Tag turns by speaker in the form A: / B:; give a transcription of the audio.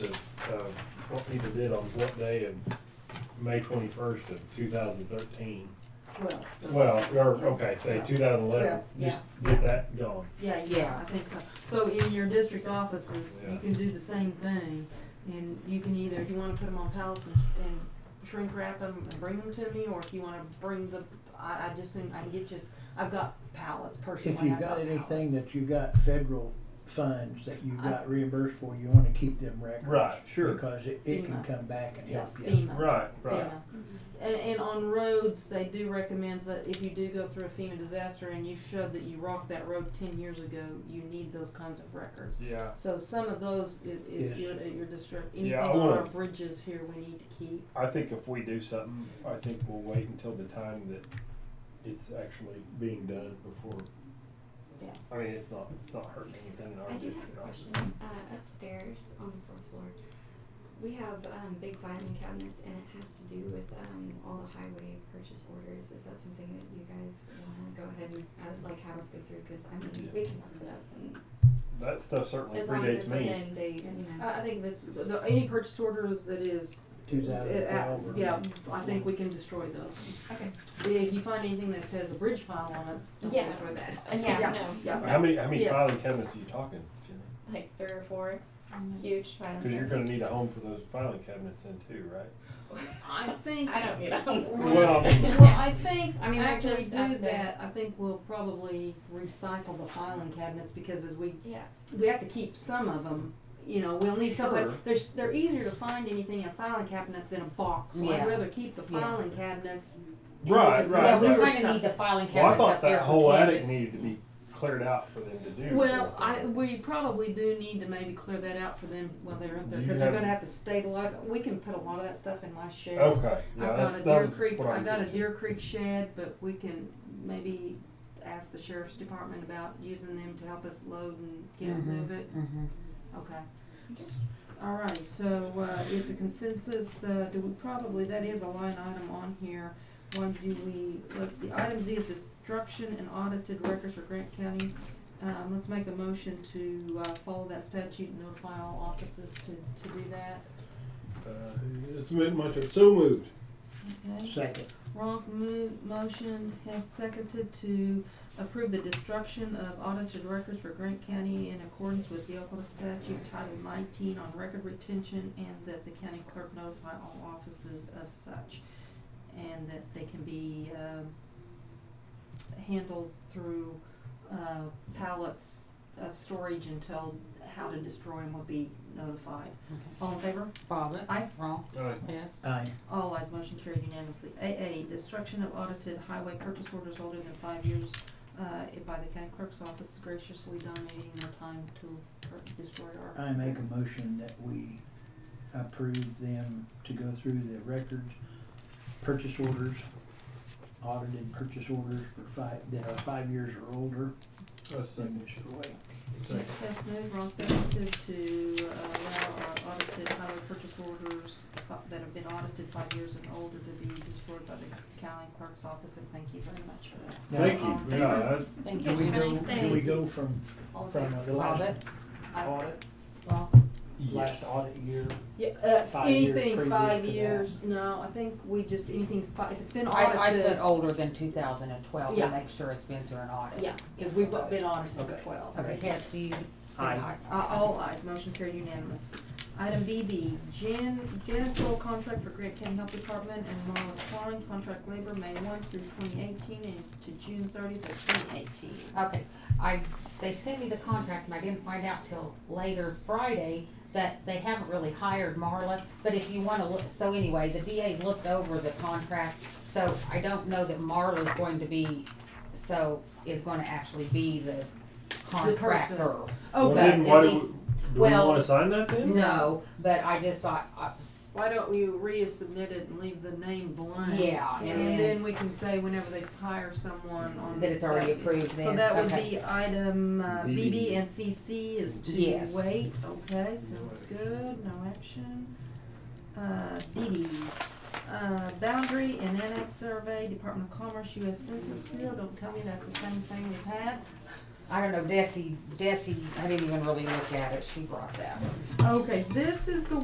A: Peter did on um, what day of May twenty-first of two thousand thirteen?
B: Well.
A: Well, or, okay, say two thousand eleven,
B: Yeah,
A: just get that going.
B: Yeah, yeah, I think so. So in your district offices,
A: Yeah.
B: you can do the same thing. And you can either, if you wanna put them on pallets and- and shrink wrap them and bring them to me, or if you wanna bring the, I, I just, think I can get you, I've got pallets personally.
C: If you
B: I've
C: got anything
B: pallets.
C: that you got federal funds that you
B: I-
C: got reimbursed for, you wanna keep them records.
A: Right, sure.
C: Because it, it can
B: FEMA.
C: come back and
B: Yeah,
C: help you.
D: Uh-huh.
B: FEMA.
A: Right, right.
B: FEMA.
D: Mm-hmm.
B: And, and on roads, they do recommend that if you do go through a FEMA disaster and you showed that you rocked that road ten years ago, you need those kinds of records.
A: Yeah,
B: So some of those is, is
C: Yes.
B: your, at your district, anything
A: Yeah, I
B: on our
A: would.
B: bridges here we need to keep.
A: I think if we do something, I think we'll wait until the time that it's actually being done before.
B: Yeah.
A: I mean, it's not, it's not hurting anything in our
D: I do
A: district.
D: have a
A: obviously.
D: question. Uh, upstairs on the fourth floor, we have um, big filing cabinets, and it has to do with um, all the highway purchase orders. Is that something that you guys want to go ahead and uh, like have us go through? Because I mean, we can box it up, and
A: That stuff certainly
D: as long as
A: predates
D: it's
A: me.
D: within date, you know.
B: I, I think that's, the, the- any purchase orders that is,
C: Two
B: uh,
C: thousand
B: uh,
C: twelve or.
B: yeah, I think we can destroy those.
D: okay.
B: If you find anything that says a bridge file on it, don't
D: Yeah.
B: destroy that.
D: And yeah,
B: Yeah.
D: no,
B: Yeah.
A: How many, how many
B: Yes.
A: filing cabinets are you talking, Jimmy?
D: like three or four huge filing.
A: Cause you're gonna
D: cabinets.
A: need a home for those filing cabinets in too, right?
B: I think.
D: I don't need a home. for
A: Well, I mean-
D: it.
B: Well, I think,
D: I mean, they're
B: after we
D: just up
B: do
D: there.
B: that, I think we'll probably recycle the filing cabinets, because as we,
D: yeah.
B: we have to keep some of them, you know, we'll need somebody,
A: Sure.
B: they're, s- they're easier to find anything in a filing cabinet than a box, so I'd
E: Yeah.
B: rather keep the
E: Yeah.
B: filing cabinets.
A: Right, right,
E: Yeah, we
A: right.
E: kinda need the filing
A: Well, I
E: cabinets
A: thought
E: up there
A: that
E: for
A: whole attic
E: kids.
A: needed to be cleared out for them to do.
B: Well,
A: that.
B: I, we probably do need to maybe clear that out for them while they're up there,
A: You
B: cause they're
A: have-
B: gonna have to stabilize, we can put a lot of that stuff in my shed.
A: Okay,
B: I've
A: yeah,
B: got a
A: that,
B: Deer
A: that was
B: Creek,
A: what I
B: I've
A: was
B: got a
A: getting
B: Deer Creek shed, but we can maybe ask the sheriff's department about using them to help us load and get it,
E: Mhm.
B: move it,
E: Mhm.
B: okay. All right, so, uh, it's a consensus, uh, do we probably, that is a line item on here, one, do we, let's see, item Z is destruction and audited records for Grant County. Um, let's make a motion to, uh, follow that statute and notify all offices to, to do that,
A: to. Uh, It's been much, so moved.
B: okay?
C: Second,
B: Ronk move, motion has seconded to approve the destruction of audited records for Grant County in accordance with the Oklahoma statute Title nineteen on record retention and that the county clerk notify all offices of such. And that they can be, um, handled through, uh, pallets of storage until how to destroy them will be notified.
E: Okay.
B: All in favor?
E: Bobbit.
B: Aye.
E: Wrong.
A: Aye.
E: Yes.
C: aye,
B: All ayes, motion carried unanimously. AA, destruction of audited highway purchase orders older than five years, uh, by the county clerk's office graciously donating their time to per- destroy our.
C: I make a motion that we approve them to go through the records, purchase orders, audited purchase orders for five, that are five years or older, then we should wait.
B: Hess moved, Ron seconded to uh, allow our audited highway purchase orders fi- that have been audited five years and older to be destroyed by the county clerk's office, and thank you very much for that. Um,
C: Now,
A: Thank
B: All in
A: you,
B: favor?
A: yeah, that's,
E: Thank
C: Do
E: you.
C: we
D: Have a
C: go,
D: nice
C: do we
D: day.
C: go from,
B: All in
C: from
B: favor?
C: the last
E: Bobbit.
B: Aye.
C: audit,
B: Ron?
C: last
A: yes.
C: audit year?
B: Yeah, uh,
C: Five years
B: anything
C: previous
B: five
C: to that.
B: years, no, I think we just, anything five, if it's been
E: I, I put
B: audited,
E: older than two thousand and twelve
B: Yeah.
E: to make sure it's been through an audit.
B: yeah, cause we've
C: Okay.
B: been audited for
C: Okay.
B: twelve.
E: Okay, Hess, do you?
C: Aye.
B: Uh, all ayes, motion carried unanimous. Item BB, Jan, janitorial contract for Grant County Health Department and Marla Klein, contract labor, May one through twenty eighteen and to June thirtieth of twenty eighteen.
E: Okay, I, they sent me the contract and I didn't find out till later Friday that they haven't really hired Marla, but if you wanna look, so anyway, the DA looked over the contract, so I don't know that Marla's going to be, so, is gonna actually be the contractor.
A: Well,
B: Okay,
A: then
E: at
A: why do,
E: least-
A: we- do we
E: well-
A: wanna sign that then?
E: No, but I just thought, uh, I,
B: why don't we resubmit it and leave the name blank?
E: Yeah, and
B: And
E: then-
B: then we can say whenever they hire someone on.
E: that it's already
B: that-
E: approved then,
B: So that would
E: okay.
B: be item uh, BB
A: BB.
B: and CC is to
E: Yes.
B: wait, okay, sounds good, no action. Uh, DD, uh, boundary and annex survey, Department of Commerce, US Census Bureau, don't tell me that's the same thing we've had.
E: I don't know, Desi, Desi, I didn't even really look at it, she brought that.
B: Okay, this is the